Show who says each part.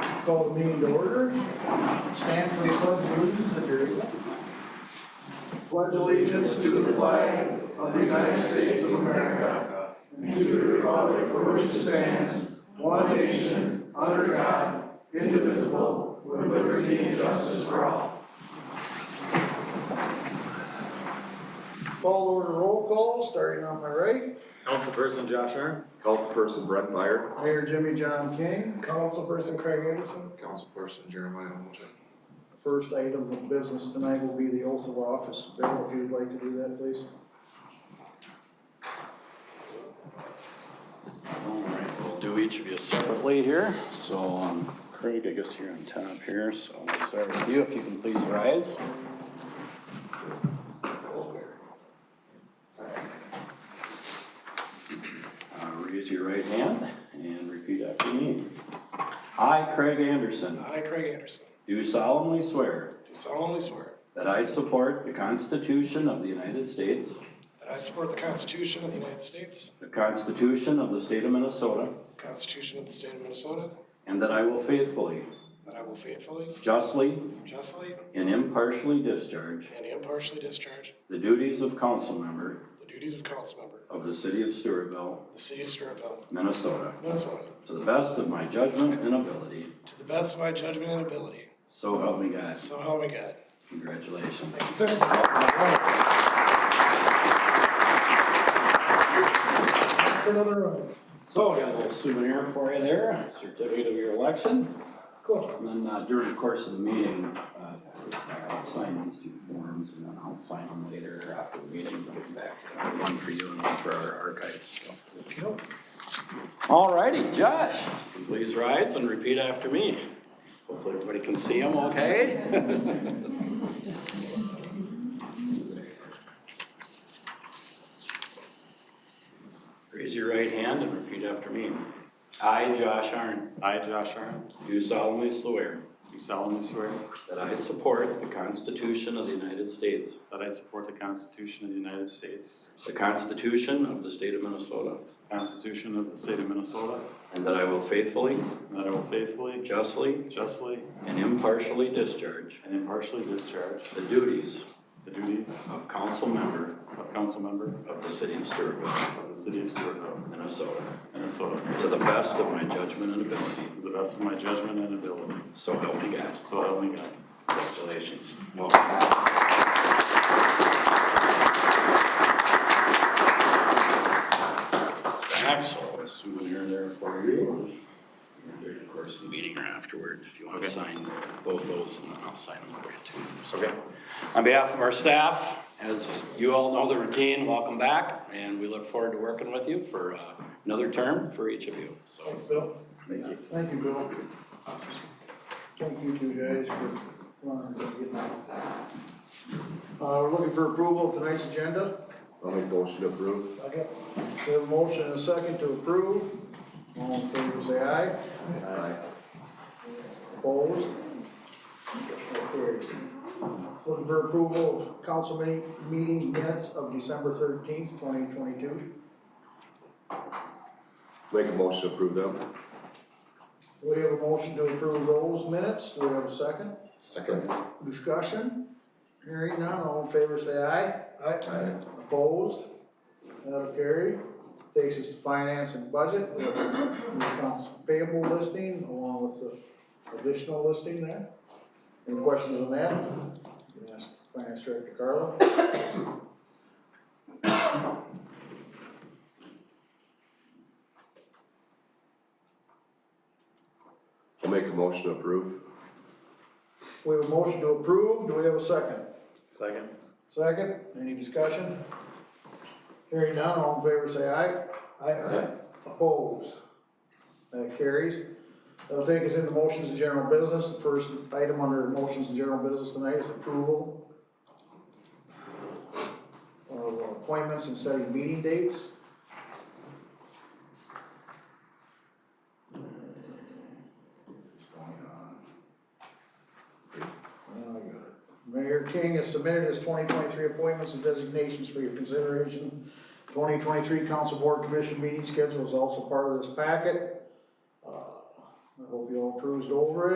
Speaker 1: Call the meeting to order. Stand for the pledge of allegiance if you're able.
Speaker 2: pledge allegiance to the flag of the United States of America and to the republic for which it stands, one nation, under God, indivisible, with liberty and justice for all.
Speaker 1: Call order roll call, starting on my right.
Speaker 3: Councilperson Josh Arn.
Speaker 4: Councilperson Brett Meyer.
Speaker 1: Mayor Jimmy John King.
Speaker 2: Councilperson Craig Anderson.
Speaker 4: Councilperson Jeremiah Olchek.
Speaker 1: First item of business tonight will be the oath of office. Bill, if you'd like to do that, please.
Speaker 5: All right, we'll do each of you separately here. So um, Craig, I guess you're on top here, so we'll start with you, if you can please rise. Uh, Raise your right hand and repeat after me. I, Craig Anderson,
Speaker 6: I, Craig Anderson,
Speaker 5: do solemnly swear
Speaker 6: do solemnly swear
Speaker 5: that I support the Constitution of the United States,
Speaker 6: that I support the Constitution of the United States,
Speaker 5: the Constitution of the State of Minnesota,
Speaker 6: the Constitution of the State of Minnesota,
Speaker 5: and that I will faithfully,
Speaker 6: that I will faithfully,
Speaker 5: justly,
Speaker 6: justly,
Speaker 5: and impartially discharge
Speaker 6: and impartially discharge
Speaker 5: The duties of council member
Speaker 6: the duties of council member
Speaker 5: of the city of Stewartville,
Speaker 6: of the city of Stewartville,
Speaker 5: Minnesota,
Speaker 6: Minnesota,
Speaker 5: to the best of my judgment and ability.
Speaker 6: to the best of my judgment and ability.
Speaker 5: So help me God.
Speaker 6: So help me God.
Speaker 5: Congratulations.
Speaker 6: Thank you, sir.
Speaker 1: Another round.
Speaker 5: So I got a little souvenir for you there, certificate of your election.
Speaker 1: Cool.
Speaker 5: And then uh, during the course of the meeting, uh, I'll sign these two forms and then I'll sign them later after the meeting. I'll get back to that. One for you and one for our archives. so. All righty, Josh, please rise and repeat after me. Hopefully everybody can see him okay. Raise your right hand and repeat after me. I, Josh Arn,
Speaker 3: I, Josh Arn,
Speaker 5: do solemnly swear
Speaker 3: do solemnly swear
Speaker 5: that I support the Constitution of the United States,
Speaker 3: that I support the Constitution of the United States,
Speaker 5: the Constitution of the State of Minnesota,
Speaker 3: the Constitution of the State of Minnesota,
Speaker 5: and that I will faithfully,
Speaker 3: and that I will faithfully,
Speaker 5: justly,
Speaker 3: justly,
Speaker 5: and impartially discharge
Speaker 3: and impartially discharge
Speaker 5: the duties
Speaker 3: the duties
Speaker 5: of council member
Speaker 3: of council member
Speaker 5: of the city of Stewartville,
Speaker 3: of the city of Stewartville,
Speaker 5: Minnesota,
Speaker 3: Minnesota,
Speaker 5: to the best of my judgment and ability.
Speaker 3: to the best of my judgment and ability.
Speaker 5: So help me God.
Speaker 3: So help me God.
Speaker 5: Congratulations. Welcome. Perhaps I'll have a souvenir there for you. During the course of the meeting or afterward, if you want
Speaker 3: Okay.
Speaker 5: to sign both those, and then I'll sign them for you too. Okay. On behalf of our staff, as you all know the routine, welcome back, and we look forward to working with you for uh, another term for each of you, so.
Speaker 1: Thanks, Bill.
Speaker 5: Thank you.
Speaker 1: Thank you, Bill. Thank you two guys for running and getting out. Uh, we're looking for approval of tonight's agenda.
Speaker 4: I'll make motion to approve.
Speaker 1: Second. We have a motion and a second to approve. All in favor, say aye.
Speaker 4: Aye.
Speaker 1: Opposed? So carries. Looking for approval of council meeting, meeting minutes of December thirteenth, twenty twenty-two.
Speaker 4: Make a motion to approve them.
Speaker 1: We have a motion to approve those minutes. Do we have a second?
Speaker 4: Second.
Speaker 1: Discussion? Hearing none, all in favor, say aye.
Speaker 4: Aye.
Speaker 1: Opposed? That'll carry. Takes us to finance and budget. We have the accounts payable listing along with the additional listing there. Any questions on that? You can ask Finance Director Carla.
Speaker 4: I'll make a motion to approve.
Speaker 1: We have a motion to approve. Do we have a second?
Speaker 3: Second.
Speaker 1: Second, any discussion? Hearing none, all in favor say aye.
Speaker 4: Aye.
Speaker 1: Opposed? That carries. That'll take us into motions and general business. The first item under motions and general business tonight is approval of appointments and setting meeting dates. Now I got it. Mayor King has submitted his twenty twenty-three appointments and designations for your consideration. Twenty twenty-three council board commission meeting schedule is also part of this packet. Uh, I hope you all cruised over it.